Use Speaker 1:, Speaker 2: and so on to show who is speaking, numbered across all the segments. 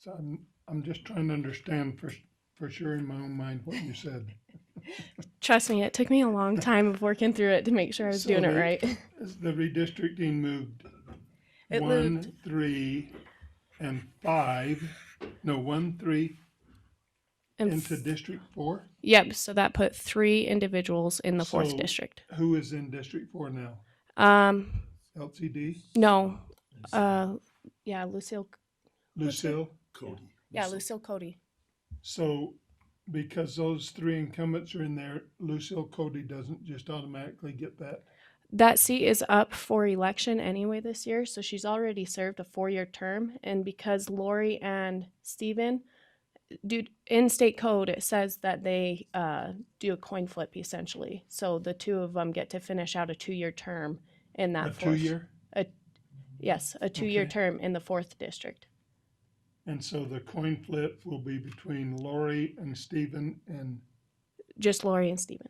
Speaker 1: So I'm, I'm just trying to understand for, s- for sure in my own mind what you said.
Speaker 2: Trust me, it took me a long time of working through it to make sure I was
Speaker 1: So
Speaker 2: doing it
Speaker 1: the-
Speaker 2: right.
Speaker 1: Is the redistricting moved?
Speaker 2: It
Speaker 1: One, three, and five, no, one, three,
Speaker 2: And
Speaker 1: into District Four?
Speaker 2: yep, so that put three individuals in the fourth
Speaker 1: So-
Speaker 2: district.
Speaker 1: Who is in District Four now?
Speaker 2: Um,
Speaker 1: LCD?
Speaker 2: no, uh, yeah, Lucille.
Speaker 1: Lucille?
Speaker 3: Cody.
Speaker 2: Yeah, Lucille Cody.
Speaker 1: So because those three incumbents are in there, Lucille Cody doesn't just automatically get that?
Speaker 2: That seat is up for election anyway this year, so she's already served a four-year term. And because Lori and Steven do in state code, it says that they uh, do a coin flip essentially. So the two of them get to finish out a two-year term in that
Speaker 1: A
Speaker 2: fourth-
Speaker 1: two-year?
Speaker 2: Yes, a two-year
Speaker 1: Okay.
Speaker 2: term in the fourth district.
Speaker 1: And so the coin flip will be between Lori and Stephen and,
Speaker 2: Just Lori and Steven.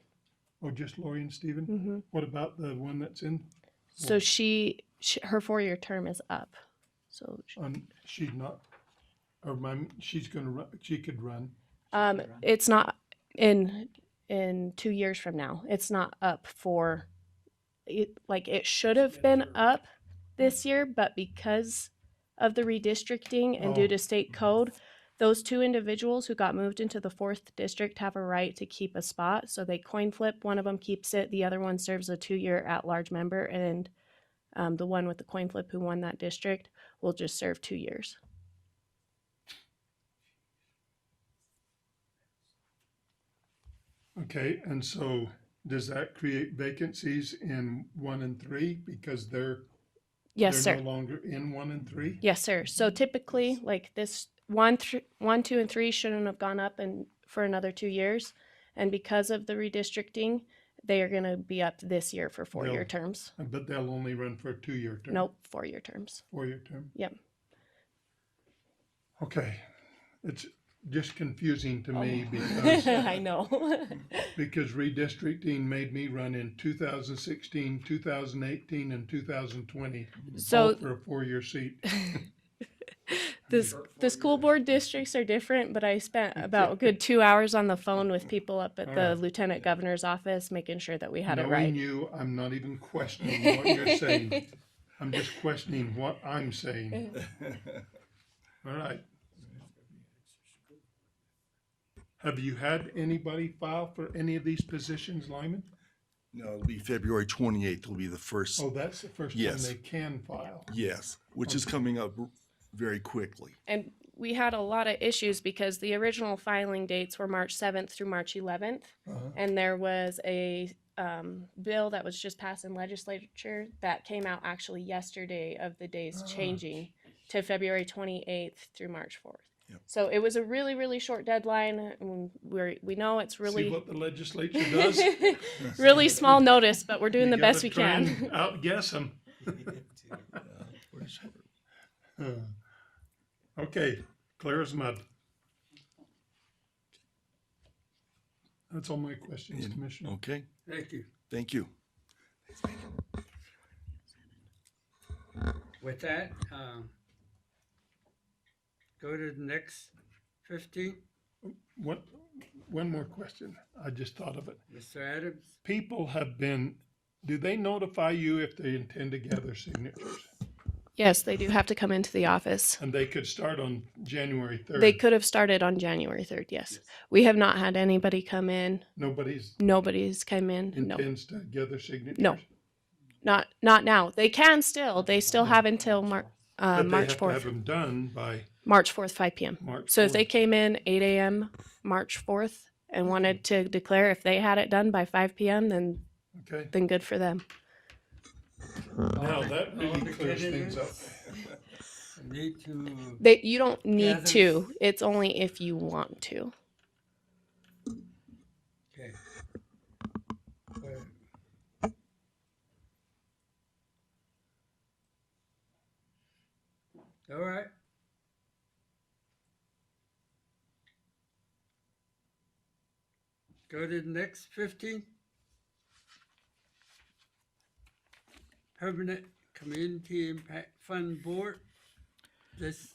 Speaker 1: oh, just Lori and Stephen?
Speaker 2: Mm-hmm.
Speaker 1: What about the one that's in,
Speaker 2: So she, she her four-year term is up. So she-
Speaker 1: on, she's not, or my, she's gonna run, she could run.
Speaker 2: Um, it's not in in two years from now. It's not up for, it, like it should have been up
Speaker 1: Mm.
Speaker 2: this year, but because of the redistricting and
Speaker 1: Oh.
Speaker 2: due to state code, those two individuals who got moved into the fourth district have a right to keep a spot. So they coin flip. One of them keeps it. The other one serves a two-year at-large member, and um, the one with the coin flip who won that district will just serve two years.
Speaker 1: Okay, and so does that create vacancies in one and three because they're,
Speaker 2: Yes, sir.
Speaker 1: they're no longer in one and three?
Speaker 2: Yes, sir. So
Speaker 1: Mm-hmm.
Speaker 2: typically, like this one, th- one, two, and three shouldn't have gone up and for another two years, and because of the redistricting, they are going to be up this year for four-year
Speaker 1: No.
Speaker 2: terms.
Speaker 1: But they'll only run for a two-year term?
Speaker 2: Nope, four-year terms.
Speaker 1: Four-year term?
Speaker 2: Yep.
Speaker 1: Okay, it's just confusing to me
Speaker 2: Oh.
Speaker 1: because
Speaker 2: I know.
Speaker 1: because redistricting made me run in 2016, 2018, and 2020 all
Speaker 2: so
Speaker 1: for a four-year seat.
Speaker 2: this the school board districts are different, but I spent about a good two hours on the phone with people up at
Speaker 1: All
Speaker 2: the
Speaker 1: right.
Speaker 2: lieutenant governor's office, making sure that we had it
Speaker 1: Knowing
Speaker 2: right.
Speaker 1: you, I'm not even questioning what you're saying. I'm just questioning what I'm saying. All right. Have you had anybody file for any of these positions, Lyman?
Speaker 3: No, it'll be February twenty-eighth will be the first,
Speaker 1: Oh, that's the first time
Speaker 3: Yes.
Speaker 1: they can file.
Speaker 3: yes, which is coming up very quickly.
Speaker 2: And we had a lot of issues because the original filing dates were March 7th through March 11th.
Speaker 1: Uh-huh.
Speaker 2: And there was a um, bill that was just passed in legislature that came out actually yesterday of the days
Speaker 1: Ah.
Speaker 2: changing to February 28th through March 4th.
Speaker 3: Yep.
Speaker 2: So it was a really, really short deadline. and We're, we know it's
Speaker 1: See
Speaker 2: really,
Speaker 1: what the legislature does?
Speaker 2: really small notice, but we're doing
Speaker 1: You
Speaker 2: the best
Speaker 1: gotta
Speaker 2: we
Speaker 1: try
Speaker 2: can.
Speaker 1: and Outguess them. Okay, clear as mud. That's all my questions, Commissioner.
Speaker 3: Okay,
Speaker 4: Thank you.
Speaker 3: thank you.
Speaker 4: With that, um, go to the next fifteen,
Speaker 1: One, one more question. I just thought of it.
Speaker 4: Mr. Adams.
Speaker 1: People have been, do they notify you if they intend to gather signatures?
Speaker 2: Yes, they do have to come into the office.
Speaker 1: And they could start on January
Speaker 2: They
Speaker 1: third.
Speaker 2: could have started on January 3rd, yes. We have not had anybody come in.
Speaker 1: Nobody's
Speaker 2: Nobody's come in. No, Uh,
Speaker 1: intends to gather signatures?
Speaker 2: not not now. They can still. They still have until Mar- uh,
Speaker 1: But they
Speaker 2: March
Speaker 1: have to have
Speaker 2: fourth.
Speaker 1: them done by
Speaker 2: March fourth, five p.m.
Speaker 1: March.
Speaker 2: So if they
Speaker 1: 4th.
Speaker 2: came in eight a.m. March fourth and wanted to declare if they had it done by five p.m., then
Speaker 1: Okay,
Speaker 2: then good for them.
Speaker 1: now that
Speaker 4: All
Speaker 1: really
Speaker 4: the
Speaker 1: clears things up.
Speaker 4: candidates Need to,
Speaker 2: They you don't need
Speaker 4: Gather.
Speaker 2: to. It's only if you want to.
Speaker 4: okay. Well, All right. Go to the next fifteen. Permanent Community Impact Fund Board. This